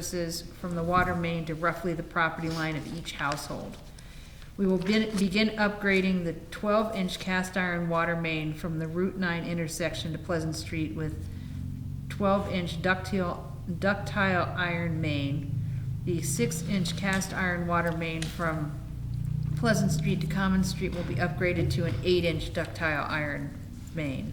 services from the water main to roughly the property line of each household. We will begin, begin upgrading the twelve-inch cast iron water main from the Route nine intersection to Pleasant Street with twelve-inch ductile, ductile iron main. The six-inch cast iron water main from Pleasant Street to Common Street will be upgraded to an eight-inch ductile iron main.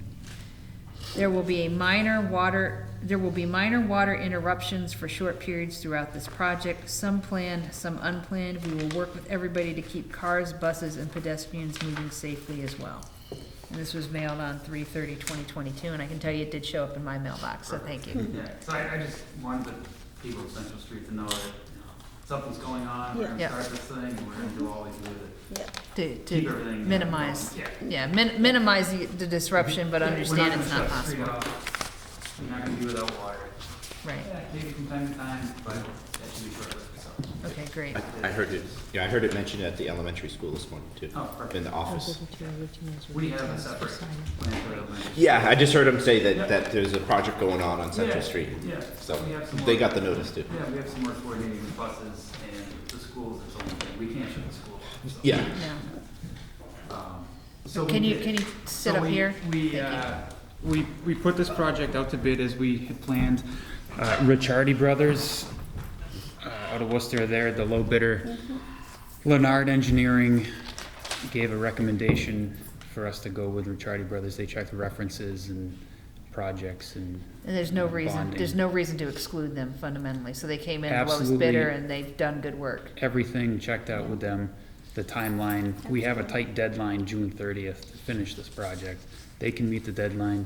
There will be a minor water, there will be minor water interruptions for short periods throughout this project, some planned, some unplanned. We will work with everybody to keep cars, buses, and pedestrians moving safely as well. And this was mailed on 3/30, 2022, and I can tell you it did show up in my mailbox, so thank you. Yeah, so I, I just wanted the people of Central Street to know that, you know, something's going on, we're gonna Yeah. start this thing, and we're gonna do all we can do to To, keep to everything. uh, minimize, Yeah. yeah, min- minimize the the disruption, but Yeah, understand it's not We're possible, not gonna shut the street off, we're not gonna be without water. right? Yeah, maybe from time to time, but that should be short lived, so. Okay, great. I I heard it, yeah, I heard it mentioned at the elementary school this morning too, Oh, perfect. in the office. We have a separate plan for that. land. Yeah, I just heard him say Yeah. that, that there's a project going on on Central Yeah, Street. yeah. So We have some they more. got the notice too. Yeah, we have some more coordinating with buses and the schools, it's only, we can't shut the school off, so. Yeah, Yeah. Um, So Can we you, did- can you sit So up we- here? Thank We, you. uh, we, we put this project out to bid as we had planned. Uh, Ricciardi Brothers, uh, out of Worcester, they're the low bidder. Mm-hmm. Leonard Engineering gave a recommendation for us to go with Ricciardi Brothers. They checked the references and projects and. And there's no and reason, bonding. there's no reason to exclude them fundamentally, so they came in lowest Absolutely. bidder and they've done good work. Everything checked out with them, the timeline. We have a tight deadline, June thirtieth, to finish this project. They can meet the deadline,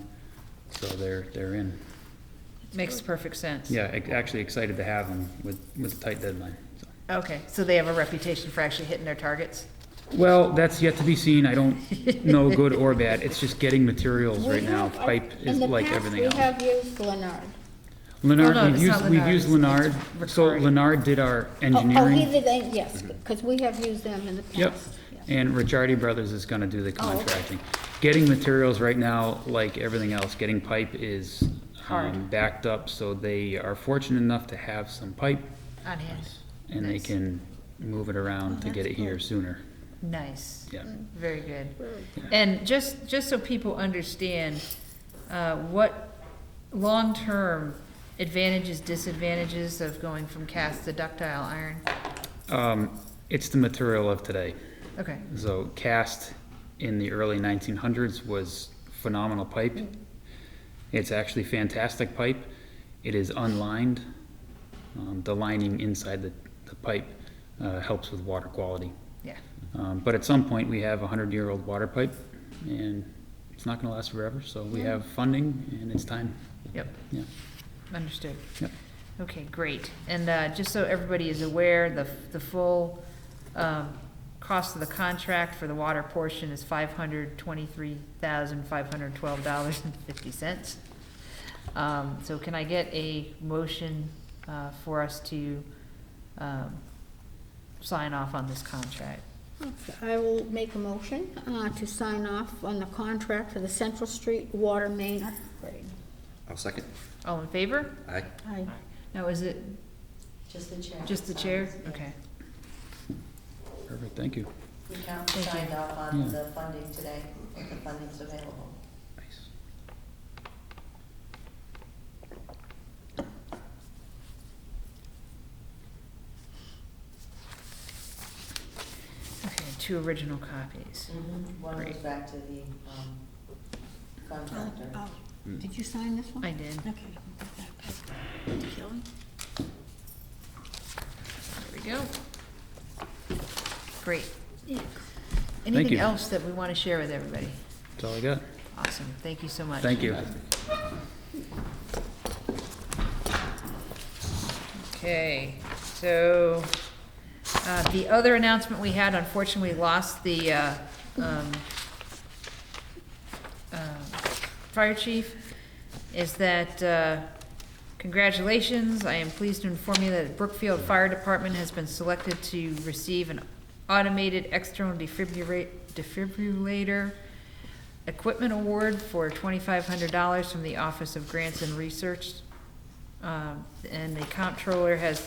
so they're, they're in. Makes perfect sense. Yeah, ac- actually excited to have them with, with a tight deadline. so. Okay, so they have a reputation for actually hitting their targets? Well, that's yet to be seen. I don't know good or bad. It's just getting materials right We now. have, uh, Pipe is like everything In else. the past, we have used Leonard. Oh, no, Leonard, we've it's not used, we've used Lennard, Leonard. it's- it's So Ricciardi. Leonard did our Oh, Oh, he engineering. Mm-hmm. did, uh, yes, because we have used them in the past. Yep. yeah. And Ricciardi Brothers is gonna do the Oh, okay. contracting. Getting materials right now, like everything else, getting pipe is um, Hard. backed up. So they are fortunate enough to have some pipe On hand. and they Nice. can move it Oh, around to get it here sooner. Nice. Yeah. Mm. Very good. Very And just, just so people understand, uh, what long-term advantages, disadvantages of going from cast to ductile iron? Um, It's the material of today. Okay, So cast in the early 1900s was phenomenal pipe. It's actually fantastic pipe. It is unlined. Um, the lining inside the, the pipe uh, helps with water quality. yeah, Um, but at some point, we have a 100 year old water pipe, and it's not going to last forever. So we have funding, and it's time. yep. Yeah. Understood. Yep. Okay, great. And uh, just so everybody is aware, the, the full um, cost of the contract for the water portion is five hundred twenty-three thousand, five hundred twelve dollars and fifty cents. Um, So can I get a motion uh, for us to um, sign off on this contract? Okay, I will make a motion uh, to sign off on the contract for the Central Street Water Main upgrade. I'll second. All in favor? Aye. I, Now, is it Just the chair. Um, just the chair? Okay. Perfect. Thank you. The council Thank you. signed off on Yeah. the funding today, if the funding's available. Okay, two original copies. One goes Mm-hmm. Great. back to the um, oh, contractor. oh, did you sign this one? I did. Okay. Shelley? There we go. Great. Yeah. Anything you. else that we want to share with everybody? That's all I got. Awesome, thank you so much. Thank you. Okay, so, uh, the other announcement we had, unfortunately, we lost the, uh, um, uh, fire chief, is that, uh, congratulations, I am pleased to inform you that Brookfield Fire Department has been selected to receive an automated external defibrillate, defibrillator equipment award for twenty-five hundred dollars from the Office of Grants and Research Um, and the comptroller has